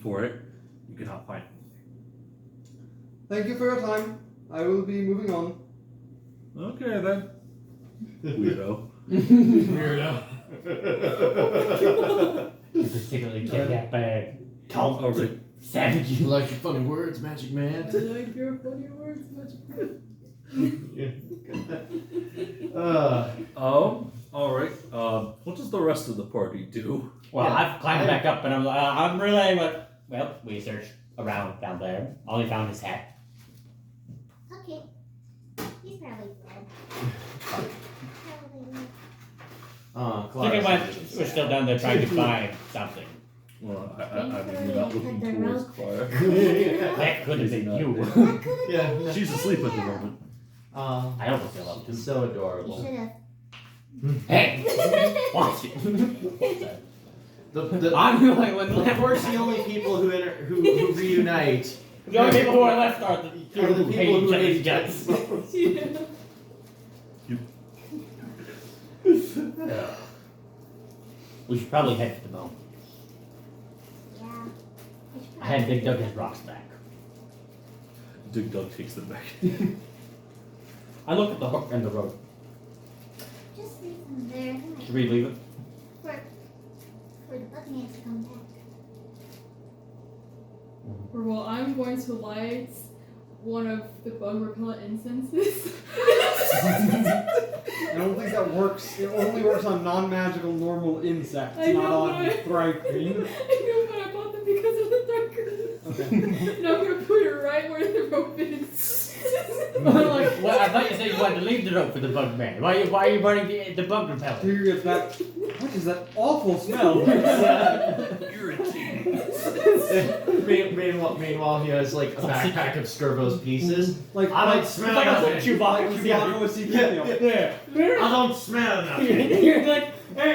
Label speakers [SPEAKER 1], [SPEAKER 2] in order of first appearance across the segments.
[SPEAKER 1] for it, you cannot find it.
[SPEAKER 2] Thank you for your time. I will be moving on.
[SPEAKER 1] Okay then. Weirdo.
[SPEAKER 3] Weirdo.
[SPEAKER 4] particularly get that bag.
[SPEAKER 1] Tom over it.
[SPEAKER 4] Savage.
[SPEAKER 3] you like your funny words, Magic Man.
[SPEAKER 5] like your funny words, magic.
[SPEAKER 3] uh,
[SPEAKER 1] Um, alright. Um, what does the rest of the party do?
[SPEAKER 4] Well,
[SPEAKER 3] Yeah.
[SPEAKER 4] I've climbed back up, and I'm uh, I'm relaying what. Well, we searched around down there. All he found is hat.
[SPEAKER 6] Okay. He's probably dead. Probably.
[SPEAKER 3] uh,
[SPEAKER 4] Look at
[SPEAKER 3] Clara.
[SPEAKER 4] what we're still down there trying to find something.
[SPEAKER 1] Well, I, I, I mean, you're not looking towards Clara.
[SPEAKER 4] That could have been you.
[SPEAKER 6] That could've
[SPEAKER 3] Yeah,
[SPEAKER 6] been
[SPEAKER 3] no.
[SPEAKER 6] me.
[SPEAKER 1] She's asleep at the moment.
[SPEAKER 3] uh,
[SPEAKER 4] I almost fell up.
[SPEAKER 3] it's so
[SPEAKER 6] You
[SPEAKER 3] adorable.
[SPEAKER 6] should've.
[SPEAKER 4] Hey, watch it.
[SPEAKER 3] The, the,
[SPEAKER 4] I'm the only one left.
[SPEAKER 3] We're the only people who inter- who, who reunite.
[SPEAKER 4] The only people who are left are the
[SPEAKER 3] Are
[SPEAKER 4] people who hate each other's guts. We should probably head to the bone.
[SPEAKER 6] Yeah. You should
[SPEAKER 4] I had
[SPEAKER 6] probably-
[SPEAKER 4] Big Doug his rocks back.
[SPEAKER 1] Dig Dug takes them back.
[SPEAKER 4] I look at the hook and the rope.
[SPEAKER 6] Just leave him there. He might-
[SPEAKER 4] Should we leave it?
[SPEAKER 6] For, for the Buccaneers to come back.
[SPEAKER 5] Or well, I'm going to light one of the bug repellent incenses.
[SPEAKER 2] I don't think that works. It only works on non-magical normal insects,
[SPEAKER 5] I
[SPEAKER 2] not
[SPEAKER 5] know,
[SPEAKER 2] on
[SPEAKER 5] but-
[SPEAKER 2] thriking.
[SPEAKER 5] I know, but I bought them because of the darker. and I'm gonna put it right where the rope is.
[SPEAKER 4] I'm like, well, I thought you said you wanted to leave the rope for the bug man. Why, why are you burning the, the bug repellent?
[SPEAKER 2] Here gets back. What is that awful smell?
[SPEAKER 1] Irritating.
[SPEAKER 3] Mean- meanwhile, meanwhile, he has like a backpack of Skirbo's pieces.
[SPEAKER 2] like
[SPEAKER 3] I
[SPEAKER 2] like
[SPEAKER 3] don't
[SPEAKER 4] It's like a
[SPEAKER 3] smell
[SPEAKER 4] little
[SPEAKER 3] nothing.
[SPEAKER 2] like
[SPEAKER 4] Chewbacca.
[SPEAKER 2] Chewbacca with
[SPEAKER 3] Yeah,
[SPEAKER 2] CPO.
[SPEAKER 3] yeah.
[SPEAKER 4] Yeah.
[SPEAKER 3] I don't smell nothing.
[SPEAKER 4] You're like, hey,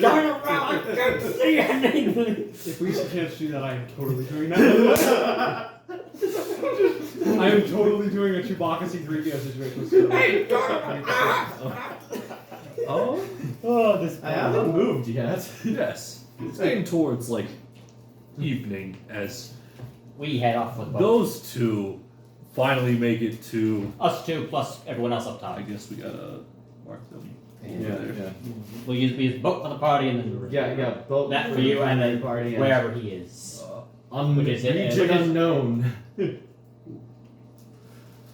[SPEAKER 4] turn around, I can't see anything.
[SPEAKER 2] If we can't do that, I am totally doing that. I am totally doing a Chewbacca C3PO situation. with Skirbo.
[SPEAKER 4] Hey, turn around.
[SPEAKER 1] Oh
[SPEAKER 4] Oh, this
[SPEAKER 3] I haven't moved yet.
[SPEAKER 1] yes. It's getting towards like evening as
[SPEAKER 4] We head off with both.
[SPEAKER 1] those two finally make it to
[SPEAKER 4] Us two plus everyone else up top.
[SPEAKER 1] I guess we gotta mark them.
[SPEAKER 3] yeah.
[SPEAKER 4] We'll use, we use boat for the party and then the
[SPEAKER 3] Yeah, yeah. Both
[SPEAKER 4] That for you and then
[SPEAKER 3] party and-
[SPEAKER 4] wherever he is.
[SPEAKER 1] Uh,
[SPEAKER 3] Um,
[SPEAKER 4] Which is it?
[SPEAKER 3] region unknown.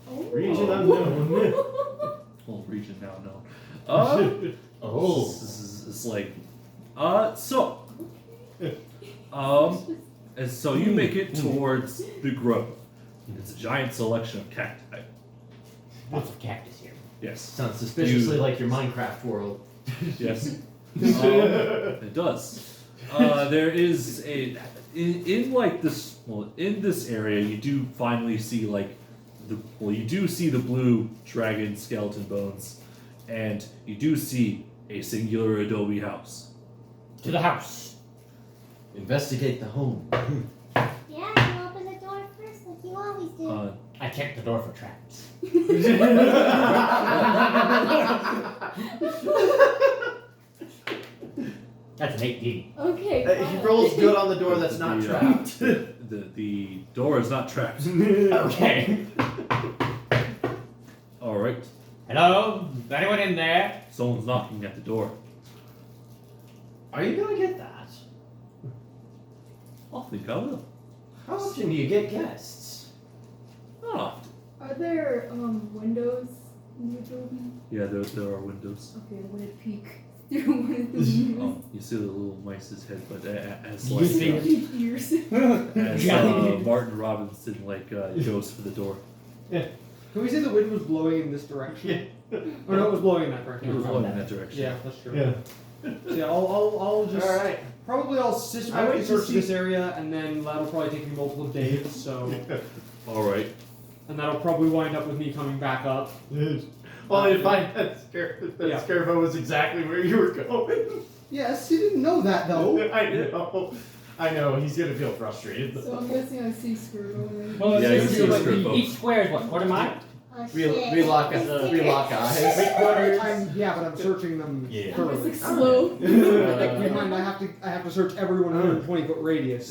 [SPEAKER 3] Oh. Region unknown.
[SPEAKER 1] whole region now known. Uh,
[SPEAKER 4] Oh.
[SPEAKER 1] This is, it's like, uh, so, um, and so you make it towards the grove. It's a giant selection of cacti.
[SPEAKER 4] Lots of cactus here.
[SPEAKER 1] Yes,
[SPEAKER 3] Sounds suspiciously
[SPEAKER 1] You-
[SPEAKER 3] like your Minecraft world.
[SPEAKER 1] yes, Um, it does. Uh, there is a in, in like this well in this area you do finally see like the well you do see the blue dragon skeleton bones, and you do see a singular adobe house.
[SPEAKER 4] To the house.
[SPEAKER 3] Investigate the home.
[SPEAKER 6] Yeah, you open the door first like you always do.
[SPEAKER 1] Uh,
[SPEAKER 4] I checked the door for traps. That's an 18.
[SPEAKER 5] okay.
[SPEAKER 3] Uh, he
[SPEAKER 5] fine.
[SPEAKER 3] rolls good on the door that's not
[SPEAKER 1] The, uh,
[SPEAKER 3] trapped.
[SPEAKER 1] the the door is not trapped.
[SPEAKER 2] Mm-hmm.
[SPEAKER 4] Okay.
[SPEAKER 1] All right,
[SPEAKER 4] Hello? Is anyone in there?
[SPEAKER 1] someone's knocking at the door.
[SPEAKER 3] Are you gonna get that?
[SPEAKER 1] I think I will.
[SPEAKER 3] How often do you get guests?
[SPEAKER 1] Not often.
[SPEAKER 5] Are there um windows in the building?
[SPEAKER 1] Yeah, there, there are windows.
[SPEAKER 5] Okay, I'm gonna peek through one of the windows.
[SPEAKER 1] Um, you see the little mice's head, but a- a- as
[SPEAKER 4] You
[SPEAKER 1] like
[SPEAKER 4] see-
[SPEAKER 1] uh,
[SPEAKER 5] Peek ears.
[SPEAKER 1] as uh, Martin Robinson like uh, goes for the door.
[SPEAKER 2] Can we say the wind was blowing in this direction? Or no, it was blowing in that
[SPEAKER 1] He
[SPEAKER 2] direction.
[SPEAKER 1] was going in that direction.
[SPEAKER 2] Yeah, that's true. So yeah, I'll, I'll, I'll just
[SPEAKER 3] All right.
[SPEAKER 2] probably I'll systematically
[SPEAKER 3] I went to
[SPEAKER 2] search
[SPEAKER 3] see-
[SPEAKER 2] this area, and then that'll probably take me multiple days. So,
[SPEAKER 1] All right.
[SPEAKER 2] and that'll probably wind up with me coming back up. Um,
[SPEAKER 3] Only to find that, scare- that
[SPEAKER 2] Yeah.
[SPEAKER 3] Scarecrow was exactly where you were going.
[SPEAKER 2] Yes, you didn't know that though.
[SPEAKER 3] I know. I know. He's gonna feel frustrated.
[SPEAKER 5] so I'm guessing I see Scribble.
[SPEAKER 4] Well,
[SPEAKER 1] Yeah,
[SPEAKER 4] it's
[SPEAKER 1] you
[SPEAKER 4] just
[SPEAKER 1] see a
[SPEAKER 4] like
[SPEAKER 1] strip of-
[SPEAKER 4] Each square is what, quarter mile?
[SPEAKER 6] oh,
[SPEAKER 3] we-
[SPEAKER 6] shit.
[SPEAKER 3] we lock us- uh, we lock eyes. Three quarters.
[SPEAKER 2] I'm, yeah, but I'm searching them
[SPEAKER 3] Yeah.
[SPEAKER 5] I was
[SPEAKER 2] thoroughly.
[SPEAKER 5] like slow.
[SPEAKER 3] Uh,
[SPEAKER 2] Like, keep in mind, I have to I have to search everyone in a 120 foot radius.